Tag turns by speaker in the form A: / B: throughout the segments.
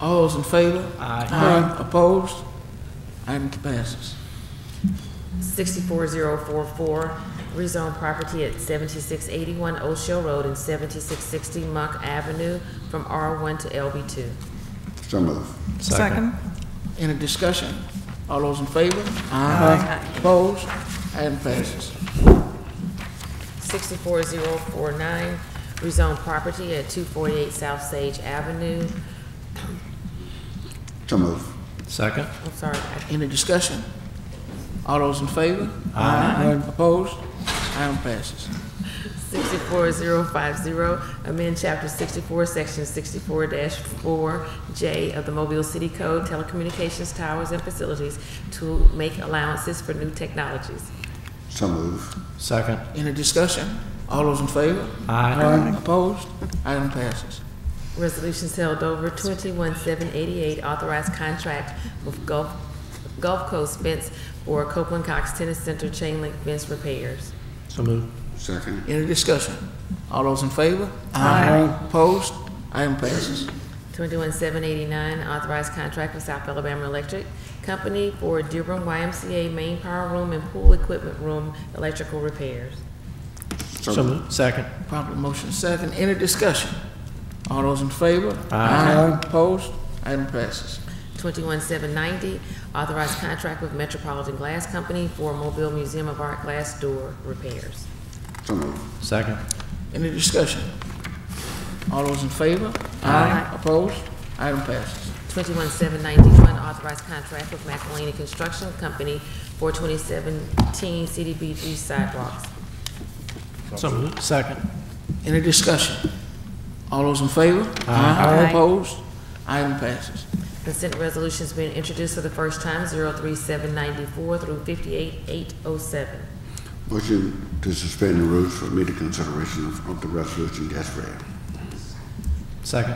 A: All those in favor?
B: Aye.
A: Opposed? Item passes.
C: 64044, rezone property at 7681 O'Shea Road and 7660 Monk Avenue from R1 to LB2.
D: So moved.
E: Second.
A: Any discussion? All those in favor? Aye. Opposed? Item passes.
C: 64049, rezone property at 248 South Sage Avenue,
D: So moved.
B: Second.
C: I'm sorry, I-
A: Any discussion? All those in favor? Aye. Opposed? Item passes.
C: 64050, amend Chapter 64, Section 64-4J of the Mobile City Code, telecommunications towers and facilities to make allowances for new technologies.
D: So moved.
B: Second.
A: Any discussion? All those in favor?
B: Aye.
A: Opposed? Item passes.
C: Resolutions held over, 21788, authorized contract with Gulf Gulf Coast Fence for Copeland Cox Tennis Center chain link fence repairs.
B: So moved.
D: Second.
A: Any discussion? All those in favor? Aye. Opposed? Item passes.
C: 21789, authorized contract with South Alabama Electric Company for Dearborn YMCA main power room and pool equipment room electrical repairs.
B: So moved. Second.
A: Properly motion second. Any discussion? All those in favor? Aye. Opposed? Item passes.
C: 21790, authorized contract with Metropolitan Glass Company for Mobile Museum of Art glass door repairs.
D: So moved.
B: Second.
A: Any discussion? All those in favor?
C: Aye.
A: Opposed? Item passes.
C: 21791, authorized contract with McElhaney Construction Company for 2017 CDBG sidewalks.
B: So moved. Second.
A: Any discussion? All those in favor? Aye.
C: Aye.
A: Opposed? Item passes.
C: Consent resolution's been introduced for the first time, 03794 through 58807.
D: Motion to suspend the rules for immediate consideration of of the resolution as read.
B: Second.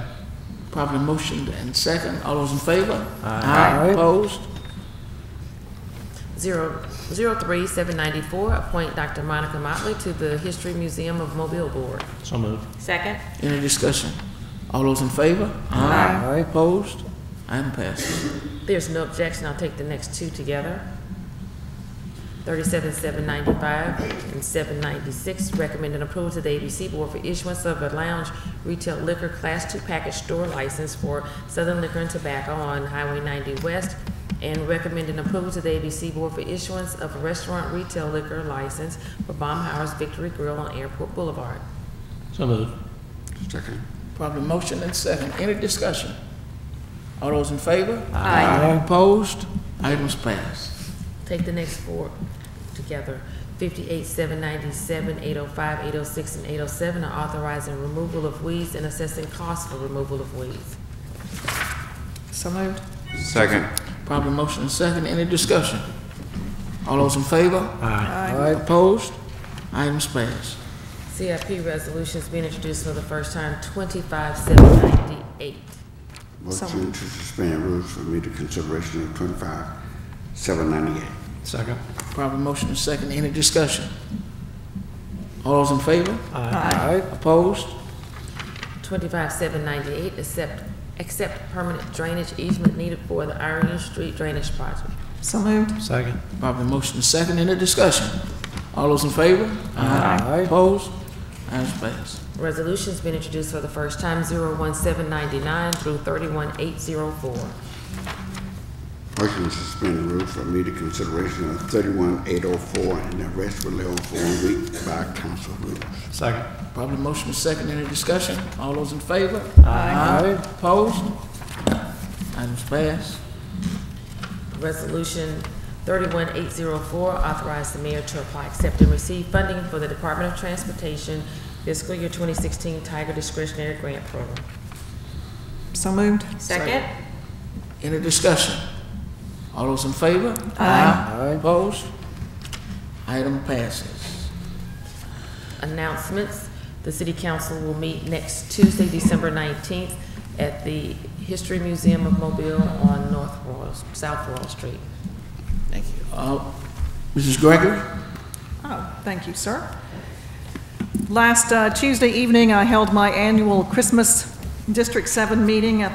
A: Properly motioned and second. All those in favor? Aye. Opposed?
C: 03794, appoint Dr. Monica Motley to the History Museum of Mobile Board.
B: So moved.
C: Second.
A: Any discussion? All those in favor? Aye. Opposed? Item passes.
C: There's no objection, I'll take the next two together. 37795 and 796, recommending approval to the ABC Board for issuance of a lounge retail liquor Class II package store license for Southern Liquor and Tobacco on Highway 90 West, and recommending approval to the ABC Board for issuance of a restaurant retail liquor license for Baumhauer's Victory Grill on Airport Boulevard.
B: So moved.
D: Second.
A: Properly motioned and second. Any discussion? All those in favor? Aye. Opposed? Items passed.
C: Take the next four together. Fifty-eight, seven ninety-seven, eight oh five, eight oh six, and eight oh seven are authorizing removal of weeds and assessing costs for removal of weeds.
E: So moved.
D: Second.
A: Properly motion and second. Any discussion? All those in favor?
B: Aye.
A: Aye. Opposed? Items passed.
C: CIP resolutions being introduced for the first time, twenty-five, seven ninety-eight.
D: Motion to suspend rules for immediate consideration of twenty-five, seven ninety-eight.
B: Second.
A: Proper motion is second. Any discussion? All those in favor? Aye. Opposed?
C: Twenty-five, seven ninety-eight, accept, accept permanent drainage easement needed for the Irene Street Drainage Project.
E: So moved.
B: Second.
A: Proper motion is second. Any discussion? All those in favor? Aye. Opposed? Items passed.
C: Resolutions being introduced for the first time, zero one seven ninety-nine through thirty-one, eight zero four.
D: Motion to suspend the rules for immediate consideration of thirty-one, eight oh four, and the rest were held for a week by council rules.
B: Second.
A: Proper motion is second. Any discussion? All those in favor? Aye. Opposed? Items passed.
C: Resolution 31804 authorized the mayor to apply, accept, and receive funding for the Department of Transportation fiscal year 2016 Tiger discretionary grant program.
E: So moved.
C: Second.
A: Any discussion? All those in favor? Aye. Opposed? Item passes.
C: Announcements. The city council will meet next Tuesday, December 19th, at the History Museum of Mobile on North Royal, South Royal Street.
A: Thank you. Uh, Mrs. Gregory?
E: Oh, thank you, sir. Last uh, Tuesday evening, I held my annual Christmas District 7 meeting at the